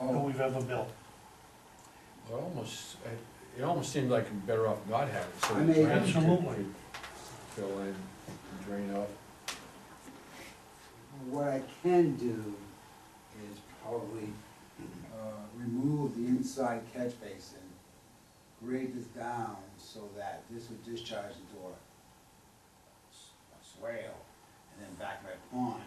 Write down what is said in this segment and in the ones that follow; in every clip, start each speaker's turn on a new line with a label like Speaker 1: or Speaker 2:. Speaker 1: Oh.
Speaker 2: we've ever built.
Speaker 3: Well, almost, it- it almost seemed like you're better off not having it, so
Speaker 1: I
Speaker 3: the
Speaker 1: mean-
Speaker 3: drainage could-
Speaker 2: Absolutely.
Speaker 3: could fill in, and drain out.
Speaker 1: What I can do is probably, uh, remove the inside catch basin, grade this down so that this would discharge into a s- a swale, and then back my pond,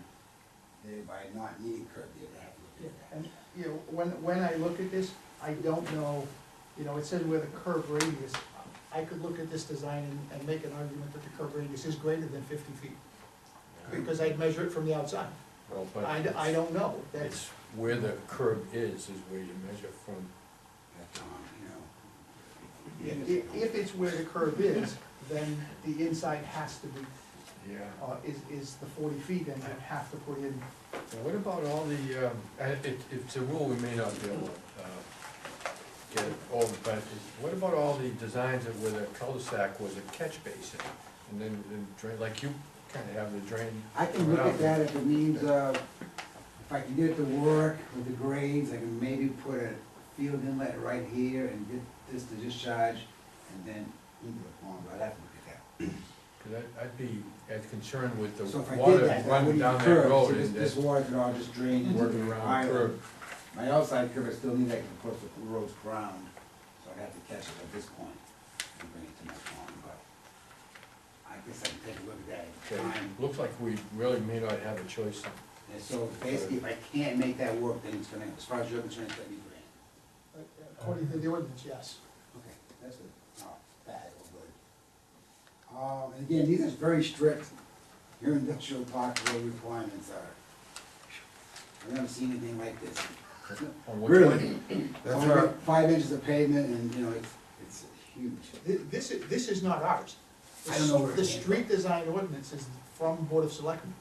Speaker 1: thereby not needing curb, you have to
Speaker 4: Yeah,
Speaker 1: look at that.
Speaker 4: And, you know, when, when I look at this, I don't know, you know, it says where the curb radius, I could look at this design and, and make an argument that the curb radius is greater than fifty feet, because I'd measure it from the outside.
Speaker 3: Well, Uh-huh. but
Speaker 4: I, d- I don't know, that's,
Speaker 3: It's where the curb is, is where you measure from.
Speaker 1: That's, um, you know,
Speaker 4: i- i- if it's where the curb is, then the inside has to be,
Speaker 3: Yeah.
Speaker 4: uh, is, is the forty feet, and you'd have to put in,
Speaker 3: What about all the, um, and it, it's a rule we may not be able to, uh, get over, but it- what about all the designs that where the cul-de-sac was a catch basin? And then, and drain, like you kinda have the drain.
Speaker 1: I can look at that if it means, uh, if I can get it to work with the grades, I can maybe put a field inlet right here and get this to discharge, and then into the pond, but I'd have to look at that.
Speaker 3: Cause I'd, I'd be as concerned with the
Speaker 1: So if I did
Speaker 3: water
Speaker 1: that, that
Speaker 3: running
Speaker 1: wouldn't
Speaker 3: down that
Speaker 1: curve, so
Speaker 3: road
Speaker 1: this,
Speaker 3: and
Speaker 1: this
Speaker 3: that
Speaker 1: water could all just drain into
Speaker 3: working
Speaker 1: the
Speaker 3: around curb.
Speaker 1: island. My outside curve, I still need that, of course, the road's ground, so I'd have to catch it at this point and bring it to my pond, but I guess I can take a look at that
Speaker 3: Okay,
Speaker 1: at the time.
Speaker 3: Looks like we really may not have a choice.
Speaker 1: And so basically, if I can't make that work, then it's gonna, as far as you're concerned, it's gonna be grand.
Speaker 4: uh, according to the ordinance, yes.
Speaker 1: Okay, that's good, not bad or good. Um, and again, these are very strict, your industrial park road requirements are. I've never seen anything like this.
Speaker 3: on which one.
Speaker 1: Really?
Speaker 3: That's
Speaker 1: Only
Speaker 3: right.
Speaker 1: Five inches of pavement and, you know, it's, it's huge.
Speaker 4: Th- This, i- this is not ours.
Speaker 1: I don't know where it
Speaker 4: The
Speaker 1: came from.
Speaker 4: street design ordinance is from Board of Selectmen.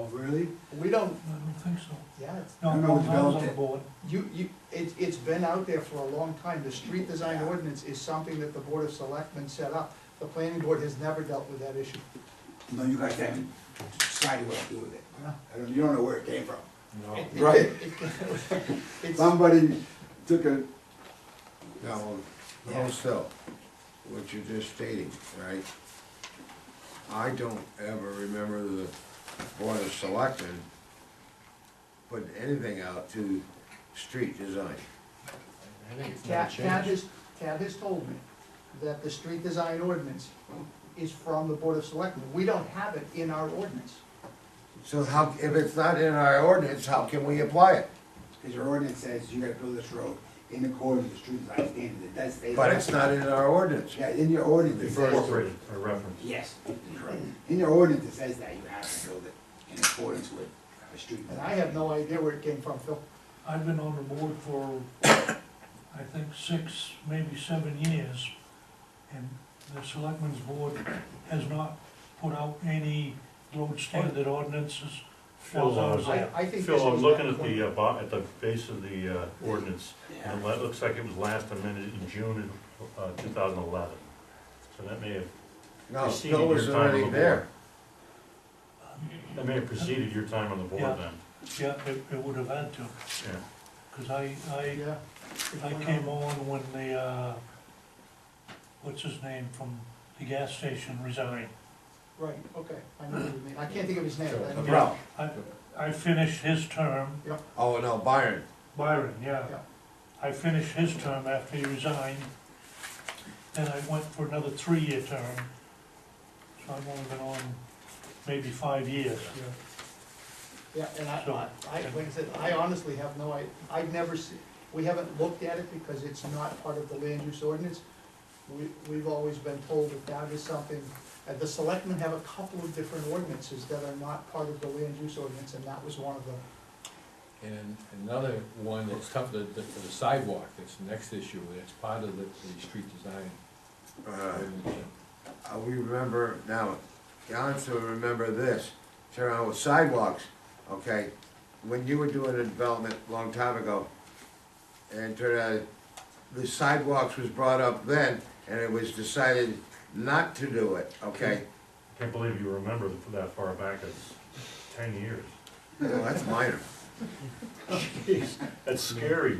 Speaker 1: Oh, really?
Speaker 4: We don't,
Speaker 2: I don't think so.
Speaker 4: yeah, it's,
Speaker 2: No,
Speaker 1: I don't know
Speaker 2: no,
Speaker 1: who
Speaker 2: I was on
Speaker 1: developed
Speaker 2: the
Speaker 1: it.
Speaker 2: board.
Speaker 4: You, you, it, it's been out there for a long time, the street design ordinance is something that the Board of Selectmen set up. The planning board has never dealt with that issue.
Speaker 1: No, you guys haven't decided what to do with it. I don't, you don't know where it came from.
Speaker 3: No.
Speaker 1: Right.
Speaker 4: It's,
Speaker 1: Somebody took a,
Speaker 5: Now,
Speaker 1: Yeah.
Speaker 5: also, what you're just stating, right? I don't ever remember the Board of Selectmen putting anything out to street design.
Speaker 3: I think it's
Speaker 4: Tad,
Speaker 3: not
Speaker 4: Tad
Speaker 3: changed.
Speaker 4: has, Tad has told me that the street design ordinance is from the Board of Selectmen. We don't have it in our ordinance.
Speaker 5: So how, if it's not in our ordinance, how can we apply it?
Speaker 1: cause your ordinance says you gotta build this road in accordance with the street design standards, it does say.
Speaker 5: But
Speaker 1: that.
Speaker 5: it's not in our ordinance.
Speaker 1: Yeah, in your ordinance it says.
Speaker 6: Incorporated or referenced.
Speaker 1: Yes, correct. In your ordinance it says that you have to build it in accordance with the street.
Speaker 4: And I have no idea where it came from, Phil.
Speaker 2: I've been on the board for, I think, six, maybe seven years, and the selectmen's board has not put out any road standard ordinances.
Speaker 6: Phil, uh,
Speaker 4: I, I think this
Speaker 6: Phil,
Speaker 4: was
Speaker 6: I'm looking
Speaker 4: that
Speaker 6: at the,
Speaker 4: one.
Speaker 6: uh, bo- at the base of the uh, ordinance,
Speaker 1: Yeah.
Speaker 6: and it looks like it was last amended in June of uh, two thousand eleven. So that may have,
Speaker 5: No,
Speaker 6: Preceded
Speaker 5: Oh, Phil was
Speaker 6: your time on
Speaker 5: already
Speaker 6: the
Speaker 5: there.
Speaker 6: that may have preceded your time on the
Speaker 2: Yeah.
Speaker 6: board then.
Speaker 2: Yeah, it, it would have had to,
Speaker 6: Yeah.
Speaker 2: because I, I,
Speaker 4: Yeah.
Speaker 2: I came on when the, uh, what's his name from the gas station resigned.
Speaker 4: Right, okay, I know what you mean. I can't think of his name. but I know-
Speaker 5: Brown.
Speaker 2: I, I finished his term,
Speaker 5: Oh, no, Byron.
Speaker 2: Byron, yeah.
Speaker 4: Yeah.
Speaker 2: I finished his term after he resigned, then I went for another three-year term. So I've only been on maybe five years.
Speaker 4: Yeah, and
Speaker 2: So-
Speaker 4: I, I, like I said, I honestly have no, I, I've never seen, we haven't looked at it because it's not part of the land use ordinance. We, we've always been told that that is something, uh, the selectmen have a couple of different ordinances that are not part of the land use ordinance, and that was one of them.
Speaker 3: And another one that's tough, the, the the sidewalk, that's the next issue, that's part of the, the street design.
Speaker 5: Uh,
Speaker 3: ordinance.
Speaker 5: Uh, we remember, now, John still remember this, turn around with sidewalks, okay? When you were doing a development a long time ago, and turn out, the sidewalks was brought up then, and it was decided not to do it, okay?
Speaker 6: Can't believe you remember that far back, it's ten years.
Speaker 5: Well, that's minor.
Speaker 6: That's scary,